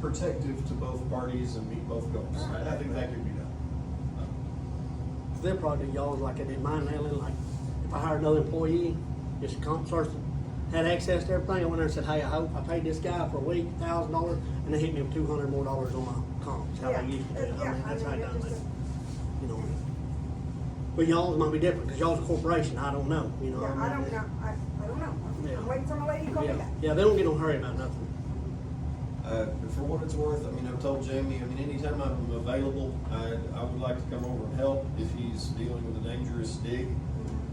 protective to both parties and meet both goals. I I think that could be done. They'll probably do y'all's like I did mine, Natalie, like, if I hired another employee, just comp source, had access to everything, I went there and said, hey, I hope, I paid this guy for a week, thousand dollars, and they hit me with two hundred more dollars on my comps, how Yeah, they used to do it, yeah, I mean, I that's how I mean, done it it, just- you know. But y'all's might be different, cause y'all's a corporation, I don't know, you know. Yeah, what I mean? don't know, I, I don't know, Yeah. I'm waiting for my lady to call me Yeah, back. yeah, they don't get no hurry about nothing. Uh, for what it's worth, I mean, I've told Jamie, I mean, anytime I'm available, I, I would like to come over and help if he's dealing with a dangerous dig.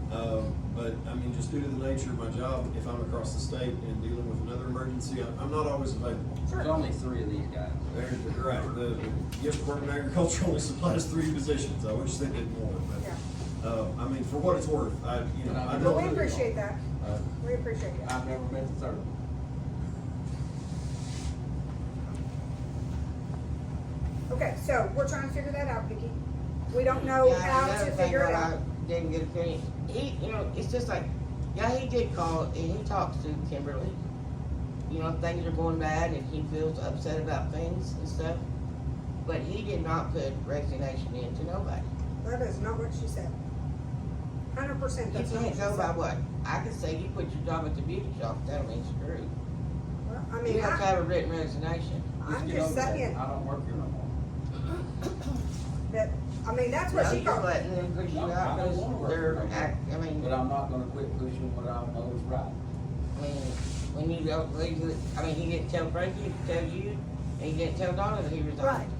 Um, but I mean, just due to the nature of my job, if I'm across the state and dealing with another emergency, I'm, I'm not always available. There's only three of these guys. There's, right, the, yes, Department of Agriculture only supplies three positions, I wish they did more, but, uh, I mean, for what it's worth, I, you know, I But don't. we appreciate that, Uh, we appreciate it. I've never met the third. one. Okay, so we're trying to figure that out, Vicki. We don't know Yeah, how another to thing figure it what I out. Didn't get a finish. He, you know, it's just like, yeah, he did call and he talks to Kimberly. You know, things are going bad and he feels upset about things and stuff. But he did not put resignation in to nobody. That is not what she said. Hundred percent, You that's not what can't she go by said. what, I can say you quit your job at the beauty shop, that means screwed. Well, I You mean, have to I, have a written resignation. Just I'm get just over that. saying I don't work here no more. that, I mean, that's No, what she you're called. letting them push you No, out I don't wanna because work they're no more. act, I mean. But I'm not gonna quit pushing what I know is right. I mean, when you go, when you- I mean, he didn't tell Frankie, he didn't tell you, and he didn't tell Donna that he Right. resigned.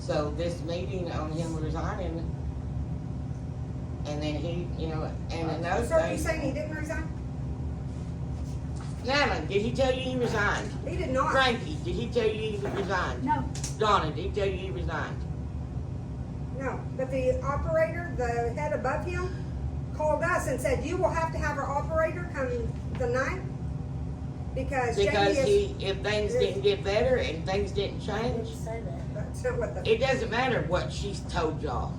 So this meeting on him resigning, and then he, you know, and another So are you saying he thing. didn't resign? Nana, did he tell you he resigned? He did not. Frankie, did he tell you he resigned? No. Donna, did he tell you he resigned? No, but the operator, the head above him, called us and said, you will have to have our operator come the ninth because Jamie Because is. he, if things didn't get better and things didn't change, That's not what the, It doesn't matter what she's told y'all.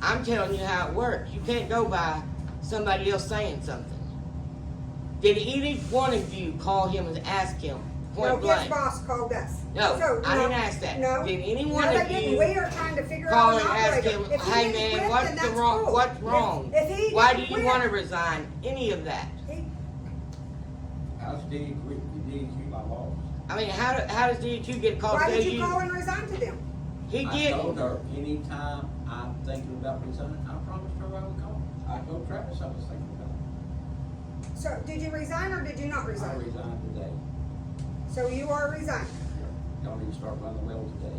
I'm telling you how it works. You can't go by somebody else saying something. Did either one of you call him and ask him no, point his blank? boss called us. No, So, I didn't ask that. No. Did any No, one they of didn't. you We are trying to figure Call out and an ask operator. him, If he hey didn't man, quit, what's then the that's wrong, cool. what's If- wrong? If he. Why do didn't you quit, wanna resign any of that? he- I stayed quit, you did, you my boss. I mean, how, do- how does DHU get a call to Why tell did you call Oh, you? and resign to them? He I told didn't. her, anytime I'm thinking about resigning, I promised her I would call. I told Travis I was thinking about So, did you resign or did you not it. I resign? resigned today. So you are resigned. Don't even start running the well today.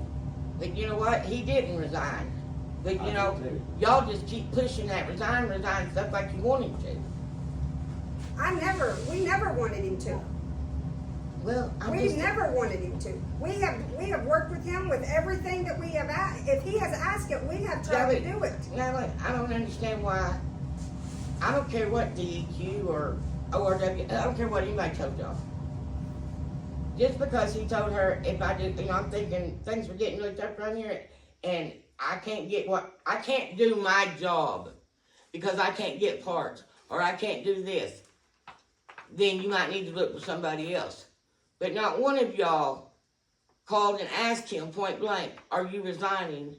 But you know what? He didn't resign. But I you did know, too. y'all just keep pushing that resign, resign stuff like you want him to. I never, we never wanted him to. Well, I'm We've just, never wanted him to. We have, we have worked with him with everything that we have asked. If he has asked it, we have tried to Gabby. do it. now look, I don't understand why, I don't care what DEQ or ORW, I don't care what anybody told y'all. Just because he told her if I did, you know, I'm thinking things were getting really tough around here and I can't get what, I can't do my job because I can't get parts or I can't do this, then you might need to look for somebody else. But not one of y'all called and asked him point blank, are you resigning?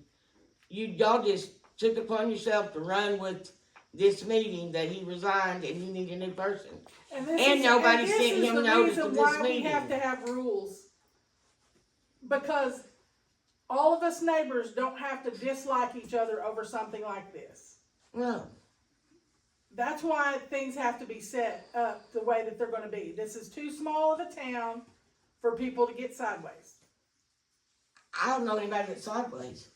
you y'all just took upon yourself to run with this meeting that he resigned and you need a new person. And, this And is, nobody and this sent is him the notice reason of this why meeting. we have to have rules. Because all of us neighbors don't have to dislike each other over something like this. No, That's why things have to be set up the way that they're going to be. This is too small of a town for people to get sideways. I don't know anybody that's sideways.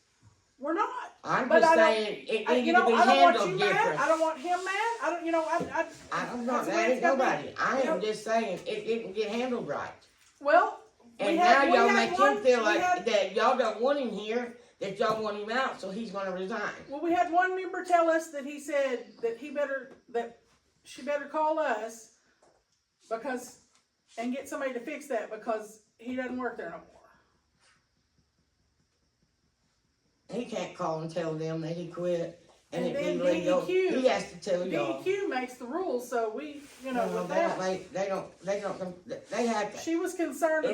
We're not. I'm But just I don't- saying it I, needed you know, to be I don't want you handled mad. I different. don't want him mad. I don't. You know, I. I, I don't know, that's the way that it's ain't gotta be. nobody. I You know, am just saying it didn't get handled right. Well, we And now had- we y'all had make him one- feel we like had- that y'all don't want him here, that y'all want him out, so he's gonna resign. Well, we had one member tell us that he said that he better, that she better call us because, and get somebody to fix that because he doesn't work there no more. He can't call and tell them that he quit and And it be then legal. DEQ He has to tell y'all. DEQ E makes the rules, so we, you know, No, with they don't that, make, they don't, they don't, they have to she was concerned